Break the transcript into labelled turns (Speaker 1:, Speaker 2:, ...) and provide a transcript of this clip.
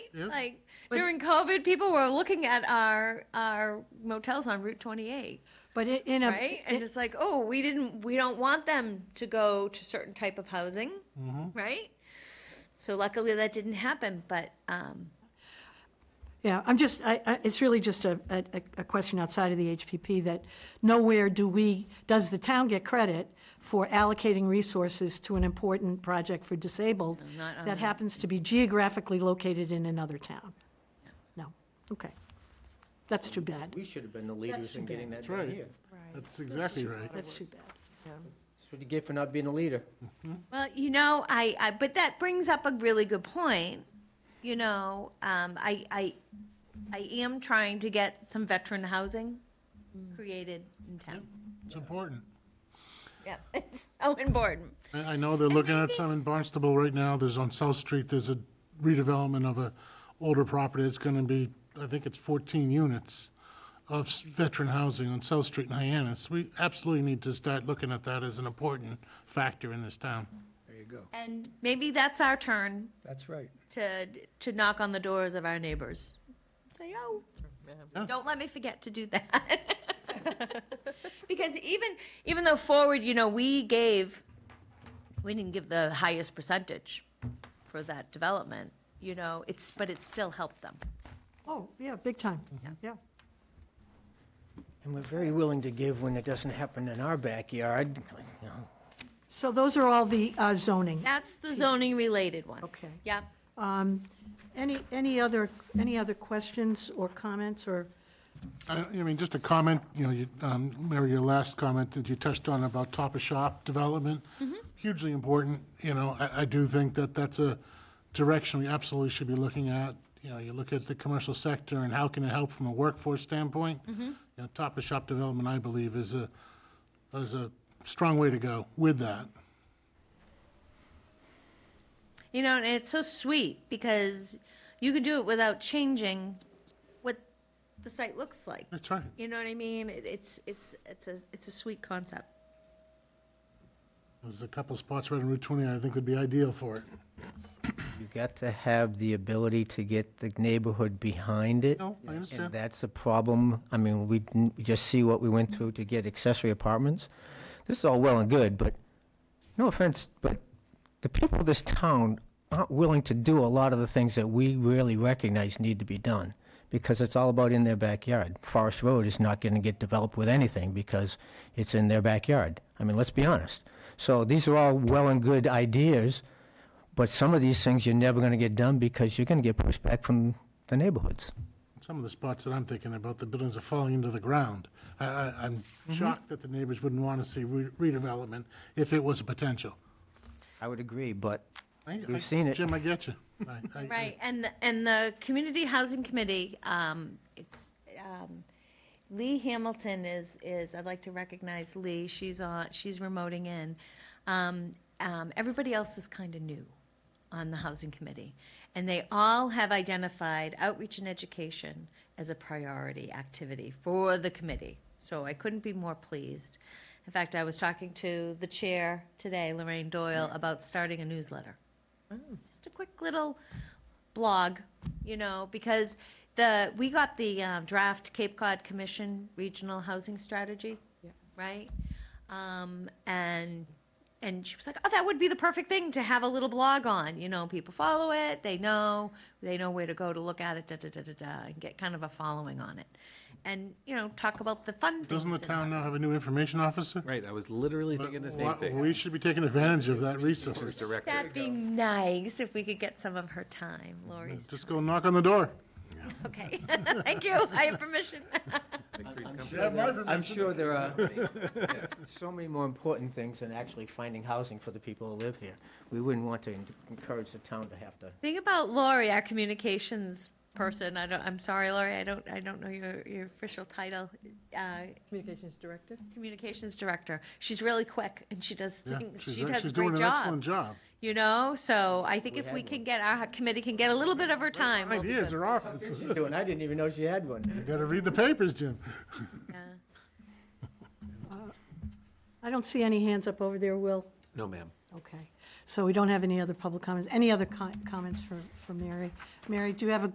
Speaker 1: Yeah.
Speaker 2: Like during COVID, people were looking at our our motels on Route 28,
Speaker 3: But in, in a.
Speaker 2: right? And
Speaker 3: in-
Speaker 2: it's like, oh, we didn't, we don't want them to go to certain type of housing, right? So luckily that didn't happen, but um,
Speaker 3: Yeah, I'm just, I, I, it's really just a, a, a question outside of the HPP that nowhere do we, does the town get credit for allocating resources to an important project for disabled
Speaker 2: not on
Speaker 3: that
Speaker 2: the-
Speaker 3: happens to be geographically located in another town? No, okay. That's too bad.
Speaker 4: We should have been the leaders
Speaker 3: too
Speaker 4: in
Speaker 3: bad.
Speaker 4: getting that
Speaker 1: That's right.
Speaker 4: done here.
Speaker 1: That's exactly right.
Speaker 3: That's too bad.
Speaker 4: That's what you get for not being a leader.
Speaker 2: Well, you know, I, I but that brings up a really good point. You know, um, I, I, I am trying to get some veteran housing created in town.
Speaker 1: It's important.
Speaker 2: Yeah, it's so important.
Speaker 1: I, I know they're looking at some in Barnstable right now. There's on South Street, there's a redevelopment of a older property. It's gonna be, I think it's fourteen units of s- veteran housing on South Street in Hyannis. We absolutely need to start looking at that as an important factor in this town.
Speaker 4: There you go.
Speaker 2: And maybe that's our turn
Speaker 4: That's right.
Speaker 2: to to knock on the doors of our neighbors. Say, oh,
Speaker 1: Yeah.
Speaker 2: don't let me forget to do that. because even even though forward, you know, we gave we didn't give the highest percentage for that development, you know, it's but it still helped them.
Speaker 3: Oh, yeah, big time,
Speaker 2: Mm-hmm.
Speaker 3: yeah.
Speaker 4: And we're very willing to give when it doesn't happen in our backyard, you know.
Speaker 3: So those are all the uh, zoning.
Speaker 2: That's the zoning related ones.
Speaker 3: Okay.
Speaker 2: Yep.
Speaker 3: Any, any other, any other questions or comments or?
Speaker 1: I I mean, just a comment, you know, you, um, Mary, your last comment that you touched on about top of shop development, hugely important, you know, I, I do think that that's a direction we absolutely should be looking at. You know, you look at the commercial sector and how can it help from a workforce standpoint? You know, top of shop development, I believe, is a, is a strong way to go with that.
Speaker 2: You know, and it's so sweet because you could do it without changing what the site looks like.
Speaker 1: That's right.
Speaker 2: You know what I mean? It- It's it's it's a it's a sweet concept.
Speaker 1: There's a couple spots right on Route 20 I think would be ideal for it.
Speaker 4: You got to have the ability to get the neighborhood behind it.
Speaker 1: No,
Speaker 4: And
Speaker 1: I understand.
Speaker 4: that's a problem. I mean, we didn't- we just see what we went through to get accessory apartments. This is all well and good, but, no offense, but the people of this town aren't willing to do a lot of the things that we really recognize need to be done, because it's all about in their backyard. Forest Road is not going to get developed with anything because it's in their backyard. I mean, let's be honest. So these are all well and good ideas, but some of these things you're never going to get done because you're going to get pushed back from the neighborhoods.
Speaker 1: Some of the spots that I'm thinking about, the buildings are falling into the ground. I, I, I'm
Speaker 4: Mm-hmm.
Speaker 1: shocked that the neighbors wouldn't want to see re- redevelopment if it was a potential.
Speaker 4: I would agree, but
Speaker 1: I- I-
Speaker 4: We've seen it.
Speaker 1: Jim, I get you. I- I- I-
Speaker 2: Right, and the, and the community housing committee, um, it's um, Lee Hamilton is is. I'd like to recognize Lee. She's on. She's remoting in. Um, um, everybody else is kind of new on the housing committee, and they all have identified outreach and education as a priority activity for the committee. So I couldn't be more pleased. In fact, I was talking to the chair today, Lorraine Doyle, about starting a newsletter just a quick little blog, you know, because the, we got the uh, draft Cape Cod Commission Regional Housing Strategy, right? Um, and, and she was like, oh, that would be the perfect thing to have a little blog on, you know, people follow it, they know, they know where to go to look at it, da, da, da, da, da, and get kind of a following on it. And, you know, talk about the fun things.
Speaker 1: Doesn't the
Speaker 2: in
Speaker 1: town now have a new information officer?
Speaker 5: Right, I was literally thinking the same
Speaker 1: Why-
Speaker 5: thing.
Speaker 1: We should be taking advantage of that
Speaker 5: This
Speaker 1: resource.
Speaker 5: is direct.
Speaker 2: That'd be nice if we could get some of her time, Lori's.
Speaker 1: Just go knock on the door.
Speaker 2: Okay, thank you, I have permission.
Speaker 4: I'm sure there are so many more important things than actually finding housing for the people who live here. We wouldn't want to en- encourage the town to have to.
Speaker 2: Think about Lori, our communications person. I don't. I'm sorry, Lori. I don't. I don't know your your official title. Uh,
Speaker 6: Communications Director?
Speaker 2: communications director. She's really quick and she does
Speaker 1: Yeah,
Speaker 2: things.
Speaker 1: she's
Speaker 2: She
Speaker 1: a-
Speaker 2: does a
Speaker 1: she's
Speaker 2: great
Speaker 1: doing an excellent
Speaker 2: job.
Speaker 1: job.
Speaker 2: You know. So I think if we can get our committee can get a little bit of her time. we'll be
Speaker 1: Ideas
Speaker 2: good.
Speaker 1: are office.
Speaker 4: She's doing, I didn't even know she had one.
Speaker 1: You gotta read the papers, Jim.
Speaker 2: Yeah.
Speaker 3: I don't see any hands up over there, Will.
Speaker 5: No, ma'am.
Speaker 3: Okay, so we don't have any other public comments. Any other co- comments for, for Mary? Mary, do you have a